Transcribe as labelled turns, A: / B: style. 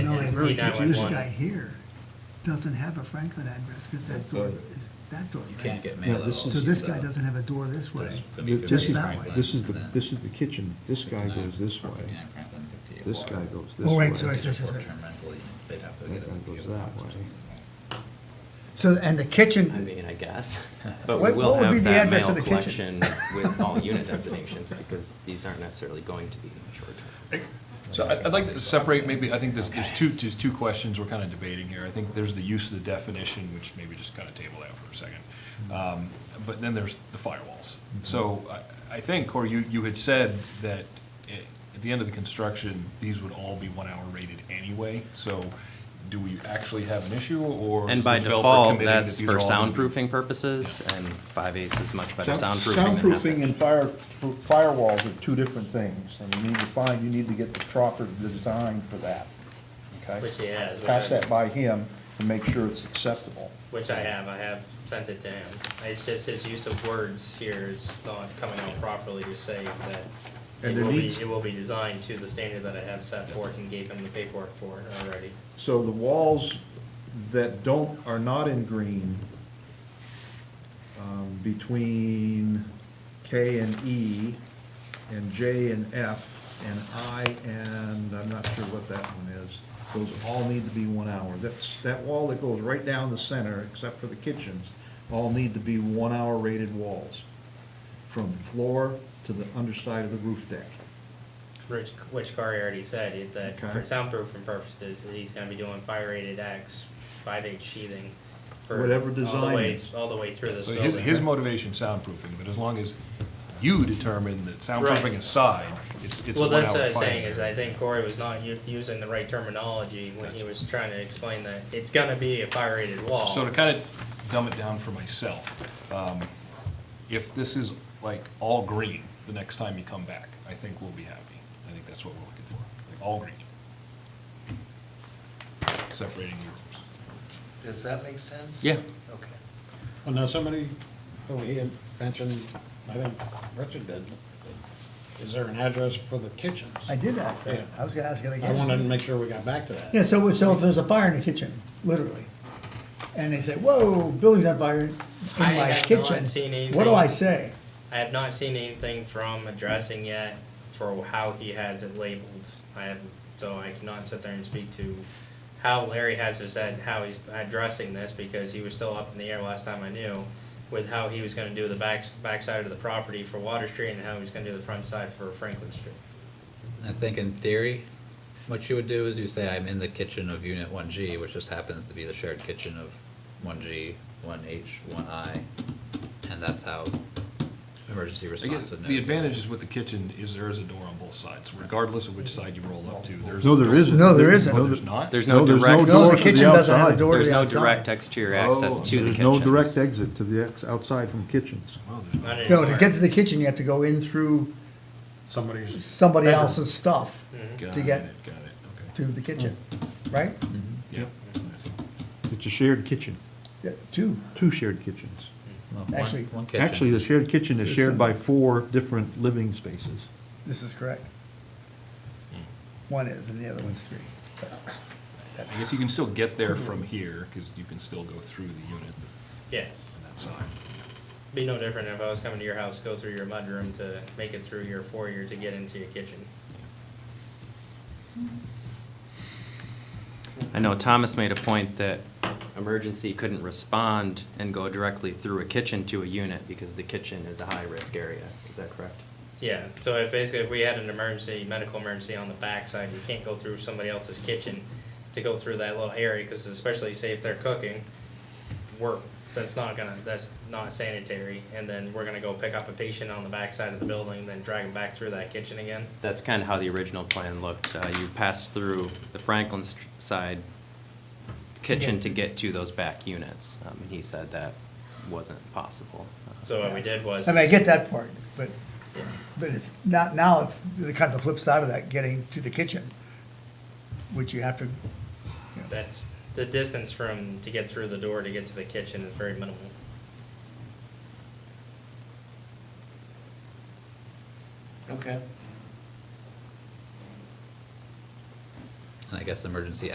A: very confused.
B: This
C: 911.
B: guy here doesn't have a Franklin address, because that door is, that door.
D: You can't get
A: Yeah,
D: mail at all.
A: this
B: So this guy doesn't have a door this way.
D: Could be
B: Just
D: 59
B: that way.
D: Franklin,
A: This is the,
D: and then
A: this is the kitchen, this guy
D: 59
A: goes this
D: or
A: way,
D: 59 Franklin, 58
A: this
D: Walker.
A: guy goes this way.
B: Oh, wait, sorry,
D: If it's
B: sorry, sorry.
D: short-term rental, you- they'd have to
A: That
D: get a
A: guy
D: PO
A: goes
D: box
A: that
D: or
A: way.
D: something.
B: So, and the
E: I
B: kitchen,
E: mean, I guess, but we
B: What-
E: will
B: what would be
E: have
B: the
E: that
B: address
E: mail
B: of the kitchen?
E: collection with all unit designations, because these aren't necessarily going to be short-term.
F: So I- I'd like to separate, maybe, I think there's, there's two, there's two questions we're kind of debating here. I think there's the use of the definition, which maybe just kind of table that for a second. Um, But then there's the firewalls. So I, I think, Corey, you, you had said that i- at the end of the construction, these would all be one-hour rated anyway. So do we actually have an issue, or?
E: And
F: is
E: by
F: the developer
E: default,
F: committing that
E: that's
F: these
E: for
F: are all gonna be-
E: soundproofing purposes, and five ace is much better
G: Sound-
E: soundproofing than
G: Soundproofing
E: nothing.
G: and fire, firewalls are two different things, and you need to find, you need to get the proper design for that, okay?
C: Which he has, which
G: Pass
C: I-
G: that by him and make sure it's acceptable.
C: Which I have, I have sent it to him. It's just his use of words here is not coming out properly to say that
G: And
C: it
G: there
C: will be,
G: needs-
C: it will be designed to the standard that I have set forth and gave him the paperwork for it already.
G: So the walls that don't, are not in green, um, between K and E, and J and F, and I and, I'm not sure what that one is, those all need to be one hour. That's, that wall that goes right down the center, except for the kitchens, all need to be one-hour rated walls, from floor to the underside of the roof deck.
C: Rich, which Corey already said, it- that for
G: Okay.
C: soundproofing purposes, that he's gonna be doing fire rated X, five H sheathing. for
G: Whatever
C: all the
G: design
C: way-
G: is.
C: All the way through this
F: So
C: building.
F: his, his motivation, soundproofing, but as long as you determine that
C: Right.
F: soundproofing aside, it's, it's a
C: Well,
F: one-hour fire.
C: that's what I'm saying, is
F: rating.
C: I think Corey was not u- using the right terminology when he
F: Gotcha.
C: was trying to explain that it's gonna be a fire rated wall.
F: So to kind of dumb it down for myself, um, if this is like all green the next time you come back, I think we'll be happy. I think that's what we're looking for, like all green. Separating the rooms.
H: Does that make sense?
E: Yeah.
H: Okay.
I: Well, now, somebody over here mentioned, I think Richard did, is there an address for the kitchens?
B: I did ask that, I was gonna ask it
I: I
B: again.
I: wanted to make sure we got back to that.
B: Yeah, so, so if there's a fire in the kitchen, literally, and they say, whoa, building's on fire in
C: I
B: my
C: have not
B: kitchen,
C: seen
B: what do I
C: anything.
B: say?
C: I have not seen anything from addressing yet for how he has it labeled. I have, so I cannot sit there and speak to how Larry has it said, how he's addressing this, because he was still up in the air last time I knew, with how he was gonna do the back, backside of the property for Water Street and how he was gonna do the front side for Franklin Street.
D: I think in theory, what you would do is you say, I'm in the kitchen of unit one G, which just happens to be the shared kitchen of one G, one H, one I, and that's how emergency
F: I guess
D: response would know.
F: The advantage is with the kitchen is there is a door on both sides, regardless of which side you roll up to, there's.
A: No, there isn't.
B: No, there isn't.
F: Oh, there's not?
E: There's
A: No,
E: no
A: there's
E: direct,
A: no door
B: No, the
A: to the
B: kitchen doesn't have a
A: outside.
B: door to
E: there's
B: the
E: no
B: outside.
E: direct exterior access
F: Oh,
E: to the
A: There's
E: kitchens.
A: no direct exit to the ex, outside from kitchens.
F: Well, there's not.
C: Not
B: No, to
C: anymore.
B: get to the kitchen, you have to go in through
I: Somebody's.
B: somebody
I: bedroom.
B: else's stuff
F: Mm-hmm. Got
B: to
F: it,
B: get
F: Got it,
B: to the kitchen, right?
F: okay.
A: It's a shared kitchen,
B: Yeah, Two,
A: two shared kitchens.
D: Well, one-
B: actually-
D: one kitchen.
A: Actually, the shared kitchen is
B: There's
A: shared
B: some-
A: by four different living spaces.
B: this is correct. One is, and the other one's three.
F: Yep. Hmm. I guess you can still get there from here, because you can still go through the unit
C: Yes.
F: on that side.
C: Be no different if I was coming to your house, go through your mudroom to make it through your foyer to get into your kitchen.
E: I know Thomas made a point that emergency couldn't respond and go directly through a kitchen to a unit, because the kitchen is a high-risk area, is that correct?
C: Yeah, so if basically if we had an emergency, medical emergency on the backside, you can't go through somebody else's kitchen to go through that little area, because especially say if they're cooking, we're, that's not gonna, that's not sanitary, and then we're gonna go pick up a patient on the backside of the building, then drag them back through that kitchen again.
E: That's kind of how the original plan looked. Uh, You passed through the Franklin st- side kitchen to get to those back units. Um, And he said that wasn't possible. Uh,
C: So what we did was.
B: I mean, I get that part, but, but it's not, now it's the kind of the flip side of that, getting to the kitchen, which you have to,
C: That's, the distance from, to get through the door to get to the kitchen is very minimal.
H: Okay.
D: And I guess emergency